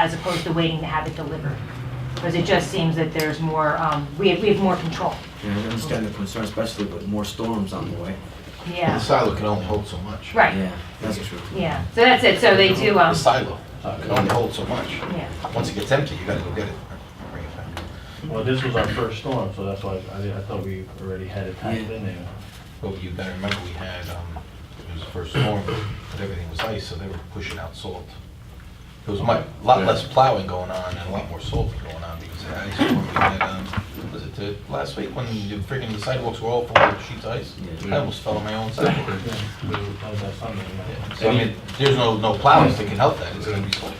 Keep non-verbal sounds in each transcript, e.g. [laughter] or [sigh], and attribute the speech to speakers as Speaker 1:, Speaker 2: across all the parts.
Speaker 1: as opposed to waiting to have it delivered. Because it just seems that there's more, um, we have, we have more control.
Speaker 2: Yeah, I understand the concern, especially with more storms on the way.
Speaker 3: The
Speaker 1: Yeah,
Speaker 3: silo can only hold so much.
Speaker 1: right,
Speaker 2: Yeah, that's true.
Speaker 1: yeah. So that's it, so they do,
Speaker 3: The
Speaker 1: um,
Speaker 3: silo uh, can only hold so much.
Speaker 1: yeah.
Speaker 3: Once it gets empty, you gotta go get it. Bring it back.
Speaker 4: Well, this was our first storm, so that's why I, I thought we already had it tied in there.
Speaker 3: But you gotta remember, we had, um, it was the first storm, but everything was ice, so they were pushing out salt. There was a lot less plowing going on and a lot more salt going on because of the ice storm. We had, um, was it the, last week when the friggin' the sidewalks were all full of sheets of ice?
Speaker 2: Yeah.
Speaker 3: I almost fell on my own sidewalk.
Speaker 4: Yeah, we were- that was that Sunday, yeah.
Speaker 3: Yeah. So I mean, there's no, no plows that can help that, it's gonna be salt.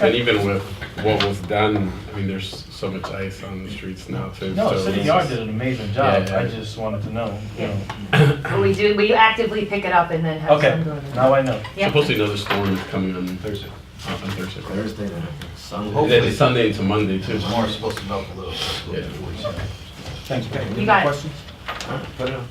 Speaker 5: And even with what was done, I mean, there's so much ice on the streets now too.
Speaker 4: No,
Speaker 5: so
Speaker 4: City
Speaker 5: this
Speaker 4: Yard
Speaker 5: is-
Speaker 4: did an amazing job,
Speaker 5: Yeah, yeah.
Speaker 4: I just wanted to know, you know.
Speaker 1: But we do, we actively pick it up and then have
Speaker 4: Okay,
Speaker 1: some go to the.
Speaker 4: now I know.
Speaker 1: Yeah.
Speaker 5: Supposedly another storm is coming on Thursday.
Speaker 3: Thursday.
Speaker 5: On Thursday. right?
Speaker 2: Thursday, then, I think,
Speaker 5: And
Speaker 2: Sunday.
Speaker 3: Hopefully.
Speaker 5: then it's Sunday into Monday too.
Speaker 3: Tomorrow's supposed to melt a little. so it's
Speaker 5: Yeah.
Speaker 3: forty seven.
Speaker 4: Thanks, Pat.
Speaker 1: You got it.
Speaker 2: Questions? All right, put it on.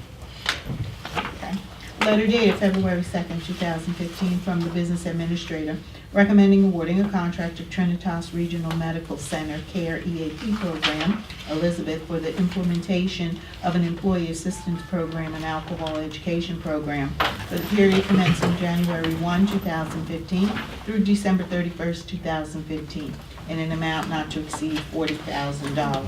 Speaker 6: Letter dated February 2nd, 2015, from the Business Administrator, recommending awarding a contract to Trinitas Regional Medical Center Care EAP Program, Elizabeth, for the implementation of an employee assistance program and alcohol education program for the period commencing January 1, 2015 through December 31st, 2015, in an amount not to exceed $40,000.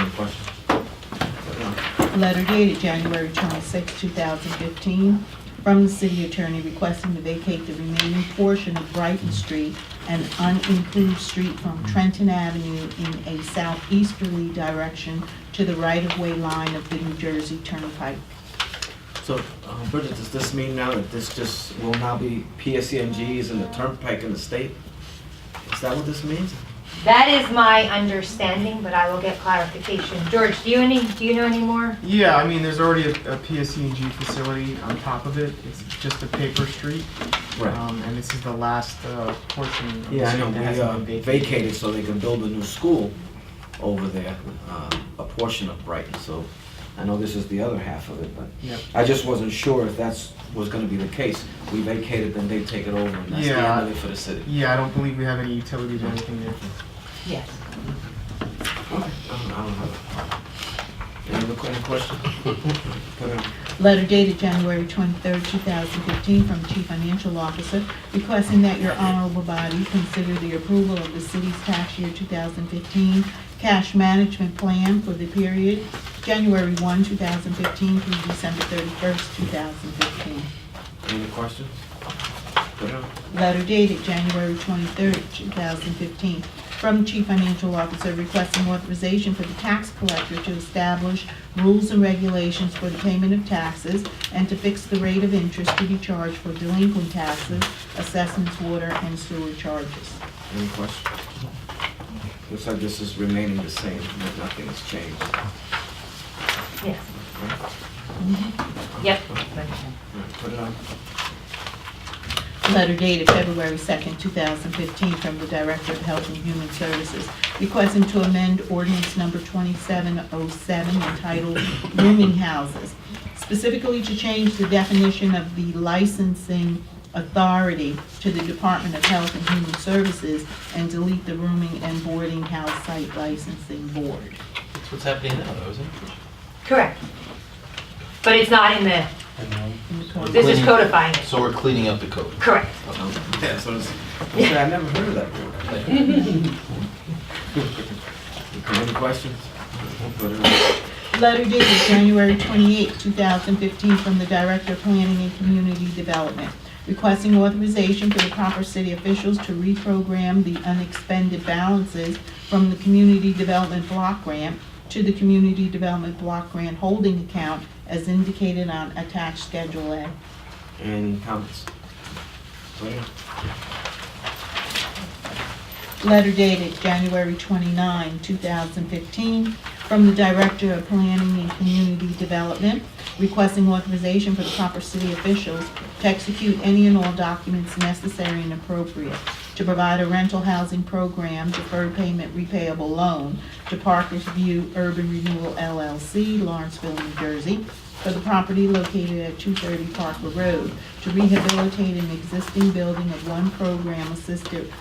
Speaker 2: Any questions? Put it on.
Speaker 6: Letter dated January 26, 2015, from the city attorney requesting to vacate the remaining portion of Brighton Street, an unimproved street from Trenton Avenue in a southeasterly direction to the right-of-way line of the New Jersey Turnpike.
Speaker 2: So, um, Bridget, does this mean now that this just will now be PSCMGs and the turnpike in the state? Is that what this means?
Speaker 1: That is my understanding, but I will get clarification. George, do you any, do you know any more?
Speaker 7: Yeah, I mean, there's already a, a PSC&G facility on top of it. It's just a paper street, um, and this is the last uh, portion of the
Speaker 2: Yeah, I
Speaker 7: street
Speaker 2: Uh, know,
Speaker 7: that hasn't been
Speaker 2: we uh,
Speaker 7: vacated.
Speaker 2: vacated so they can build a new school over there, um, a portion of Brighton, so I know this is the other half of it, but
Speaker 7: Yep.
Speaker 2: I just wasn't sure if that's, was gonna be the case. We vacated, then they take it over, and that's the end of it for the city.
Speaker 7: Yeah, I don't believe we have any utilities or anything there.
Speaker 1: Yes.
Speaker 2: Okay. I don't I don't have it. Any other que- any questions? Put it on.
Speaker 6: Letter dated January 23, 2015, from Chief Financial Officer requesting that your honorable body consider the approval of the city's tax year 2015 cash management plan for the period January 1, 2015 through December 31, 2015.
Speaker 2: Any questions? Put it on.
Speaker 6: Letter dated January 23, 2015, from Chief Financial Officer requesting authorization for the tax collector to establish rules and regulations for the payment of taxes and to fix the rate of interest to be charged for delinquent taxes, assessments, water, and sewer charges.
Speaker 2: Any questions? Looks like this is remaining the same, nothing has changed.
Speaker 1: Yes. Yep.
Speaker 2: Put it on. [laughs]
Speaker 6: Letter dated February 2nd, 2015, from the Director of Health and Human Services requesting to amend ordinance number 2707 entitled rooming houses, specifically to change the definition of the licensing authority to the Department of Health and Human Services and delete the rooming and boarding house site licensing board.
Speaker 3: That's what's happening now, though, isn't it?
Speaker 1: Correct. But it's not in the,
Speaker 4: And, um,
Speaker 6: In the code.
Speaker 1: this is codifying it.
Speaker 3: So we're cleaning up the code.
Speaker 1: Correct.
Speaker 2: Yeah, so it's, okay, I never heard of that word. [laughs] Okay, Any questions? Put it on.
Speaker 6: Letter dated January 28, 2015, from the Director of Planning and Community Development, requesting authorization for the proper city officials to reprogram the unexpended balances from the Community Development Block Grant to the Community Development Block Grant Holding Account as indicated on attached Schedule A.
Speaker 2: Any comments? Put it on.
Speaker 6: Letter dated January 29, 2015, from the Director of Planning and Community Development requesting authorization for the proper city officials to execute any and all documents necessary and appropriate to provide a rental housing program, deferred payment repayable loan to Parkers View Urban Renewal LLC, Lawrenceville, New Jersey, for the property located at 230 Parker Road to rehabilitate an existing building of one program assisted